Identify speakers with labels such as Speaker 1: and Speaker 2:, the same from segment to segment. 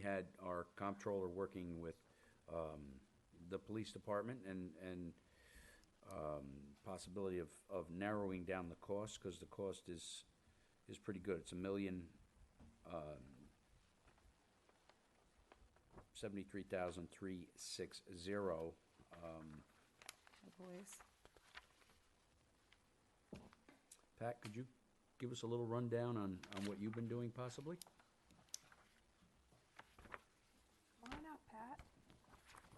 Speaker 1: had our comptroller working with um, the police department and, and um, possibility of, of narrowing down the cost, because the cost is, is pretty good. It's a million, um, seventy-three thousand three six zero.
Speaker 2: Oh, boys.
Speaker 1: Pat, could you give us a little rundown on, on what you've been doing possibly?
Speaker 2: Come on out, Pat.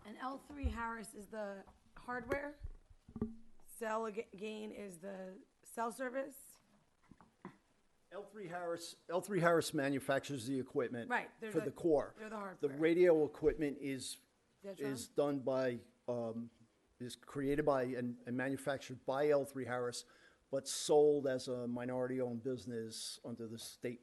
Speaker 2: And L3 Harris is the hardware. Cell Ag- Gain is the cell service.
Speaker 3: L3 Harris, L3 Harris manufactures the equipment.
Speaker 2: Right, they're
Speaker 3: For
Speaker 2: the-
Speaker 3: the core.
Speaker 2: they're the
Speaker 3: The
Speaker 2: hardware.
Speaker 3: radio equipment is,
Speaker 2: Detron?
Speaker 3: is done by, um, is created by and and manufactured by L3 Harris, but sold as a minority-owned business under the state,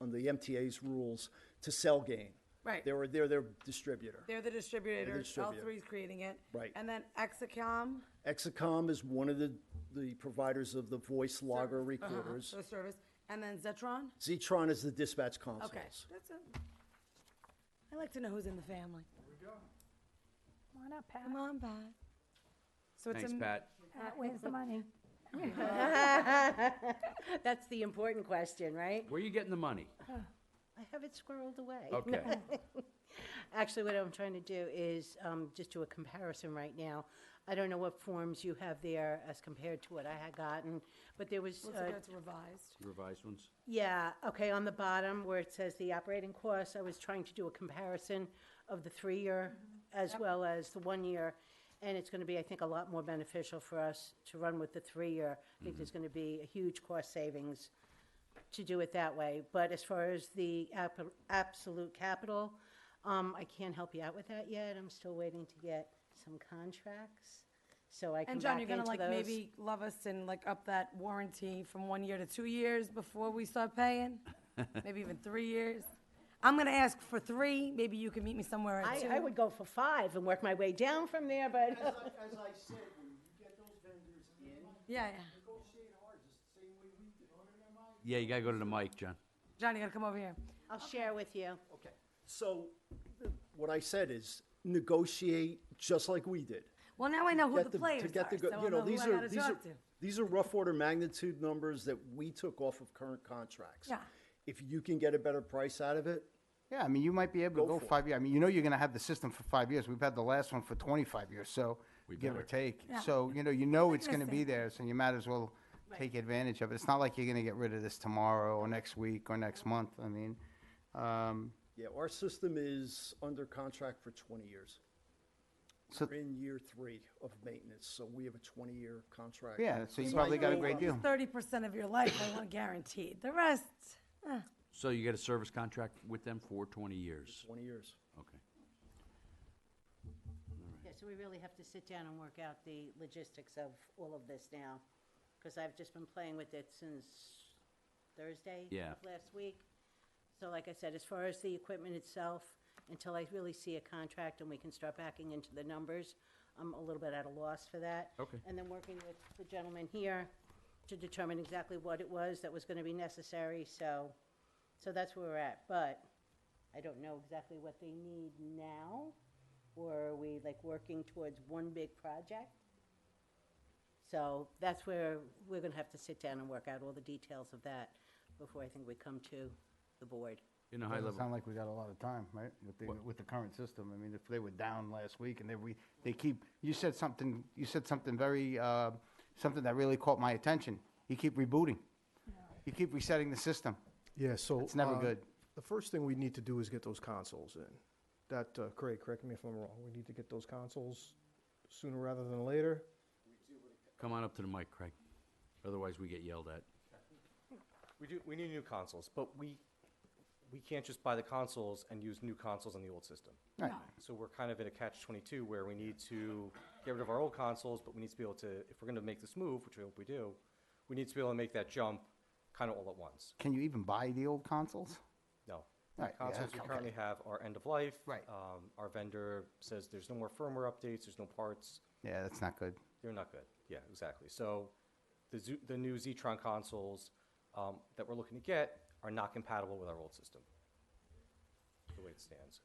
Speaker 3: under the MTA's rules to Cellgain.
Speaker 2: Right.
Speaker 3: They were, they're their distributor.
Speaker 2: They're the distributor.
Speaker 3: distributor.
Speaker 2: L3 is creating it.
Speaker 3: Right.
Speaker 2: And then Exacom,
Speaker 3: Exacom is one of the, the providers of the voice
Speaker 2: Uh-huh.
Speaker 3: logger recorders.
Speaker 2: the service. And then Zetron.
Speaker 3: Zetron is the dispatch consoles.
Speaker 2: Okay, that's it. I like to know who's in the family.
Speaker 4: Come on up, Pat.
Speaker 2: Come on, Pat. So it's
Speaker 1: Thanks,
Speaker 2: a-
Speaker 1: Pat.
Speaker 4: Pat, where's the money?
Speaker 5: That's the important question, right?
Speaker 1: Where are you getting the money?
Speaker 5: I have it squirreled away.
Speaker 1: Okay.
Speaker 5: Actually, what I'm trying to do is um, just do a comparison right now. I don't know what forms you have there as compared to what I had gotten, but there was,
Speaker 2: Let's
Speaker 5: uh,
Speaker 2: go to revised.
Speaker 1: Revised ones?
Speaker 5: yeah, okay, on the bottom where it says the operating costs, I was trying to do a comparison of the three-year
Speaker 2: Mm-hmm.
Speaker 5: as well as the one-year, and it's going to be, I think, a lot more beneficial for us to run with the three-year. I think
Speaker 2: Mm-hmm.
Speaker 5: there's going to be a huge cost savings to do it that way. But as far as the ap- absolute capital, um, I can't help you out with that yet. I'm still waiting to get some contracts, so I can
Speaker 2: And
Speaker 5: back
Speaker 2: John,
Speaker 5: into
Speaker 2: you're
Speaker 5: those.
Speaker 2: gonna like maybe love us and like up that warranty from one year to two years before we start paying? Maybe even three years? I'm gonna ask for three, maybe you can meet me somewhere at
Speaker 5: I, I
Speaker 2: two.
Speaker 5: would go for five and work my way down from there, but.
Speaker 3: As I, as I said, when you get those vendors in,
Speaker 2: Yeah, yeah.
Speaker 3: negotiate hard, just the same way we did.
Speaker 1: Yeah, you gotta go to the mic, John.
Speaker 2: John, you gotta come over here.
Speaker 5: I'll share with you.
Speaker 3: Okay, so th- what I said is negotiate just like we did.
Speaker 2: Well, now I know who
Speaker 3: Get
Speaker 2: the
Speaker 3: to
Speaker 2: players
Speaker 3: get
Speaker 2: are,
Speaker 3: the
Speaker 2: so
Speaker 3: go-
Speaker 2: I'll
Speaker 3: you
Speaker 2: know who
Speaker 3: these
Speaker 2: I
Speaker 3: are-
Speaker 2: gotta
Speaker 3: these are-
Speaker 2: talk to.
Speaker 3: These are rough order magnitude numbers that we took off of current contracts.
Speaker 2: Yeah.
Speaker 3: If you can get a better price out of it,
Speaker 6: Yeah, I mean, you might be able
Speaker 3: Go
Speaker 6: to go
Speaker 3: for it.
Speaker 6: five years. I mean, you know you're gonna have the system for five years. We've had the last one for twenty-five years, so, give or take. So, you know, you know it's gonna be there, so you might as well take advantage of it. It's not like you're gonna get rid of this tomorrow or next week or next month. I mean, um,
Speaker 3: yeah, our system is under contract for twenty years.
Speaker 6: So-
Speaker 3: We're in year three of maintenance, so we have a twenty-year contract.
Speaker 6: yeah, so you probably got a great deal.
Speaker 2: Thirty percent of your life, I want guaranteed. The rest,
Speaker 1: So you get a service contract with them for twenty years?
Speaker 3: Twenty years.
Speaker 1: Okay.
Speaker 5: Yeah, so we really have to sit down and work out the logistics of all of this now, because I've just been playing with it since Thursday
Speaker 1: Yeah.
Speaker 5: of last week. So like I said, as far as the equipment itself, until I really see a contract and we can start backing into the numbers, I'm a little bit at a loss for that.
Speaker 1: Okay.
Speaker 5: And then working with the gentleman here to determine exactly what it was that was gonna be necessary, so, so that's where we're at. But I don't know exactly what they need now, or are we like working towards one big project? So that's where we're gonna have to sit down and work out all the details of that before I think we come to the board.
Speaker 1: In a high
Speaker 6: Doesn't sound
Speaker 1: level,
Speaker 6: like we got a lot of time, right, with the, with the current system. I mean, if they were down last week and they, we, they keep, you said something, you said something very, uh, something that really caught my attention. You keep rebooting. You keep resetting the system.
Speaker 7: Yeah, so.
Speaker 6: It's never
Speaker 7: uh,
Speaker 6: good.
Speaker 7: The first thing we need to do is get those consoles in. That, uh, Craig, correct me if I'm wrong, we need to get those consoles sooner rather than later.
Speaker 1: come on up to the mic, Craig. Otherwise, we get yelled at.
Speaker 8: We do, we need new consoles, but we, we can't just buy the consoles and use new consoles on the old system.
Speaker 6: Right.
Speaker 8: So we're kind of in a catch twenty-two where we need to get rid of our old consoles, but we need to be able to, if we're gonna make this move, which we hope we do, we need to be able to make that jump kind of all at once.
Speaker 6: Can you even buy the old consoles?
Speaker 8: No.
Speaker 6: Right, yeah,
Speaker 8: Consoles we
Speaker 6: okay.
Speaker 8: currently have are end of life.
Speaker 6: Right.
Speaker 8: Um, our vendor says there's no more firmware updates, there's no parts.
Speaker 6: Yeah, that's not good.
Speaker 8: They're not good. Yeah, exactly. So the, Zu- the new Zetron consoles um, that we're looking to get are not compatible with our old system. the way it stands.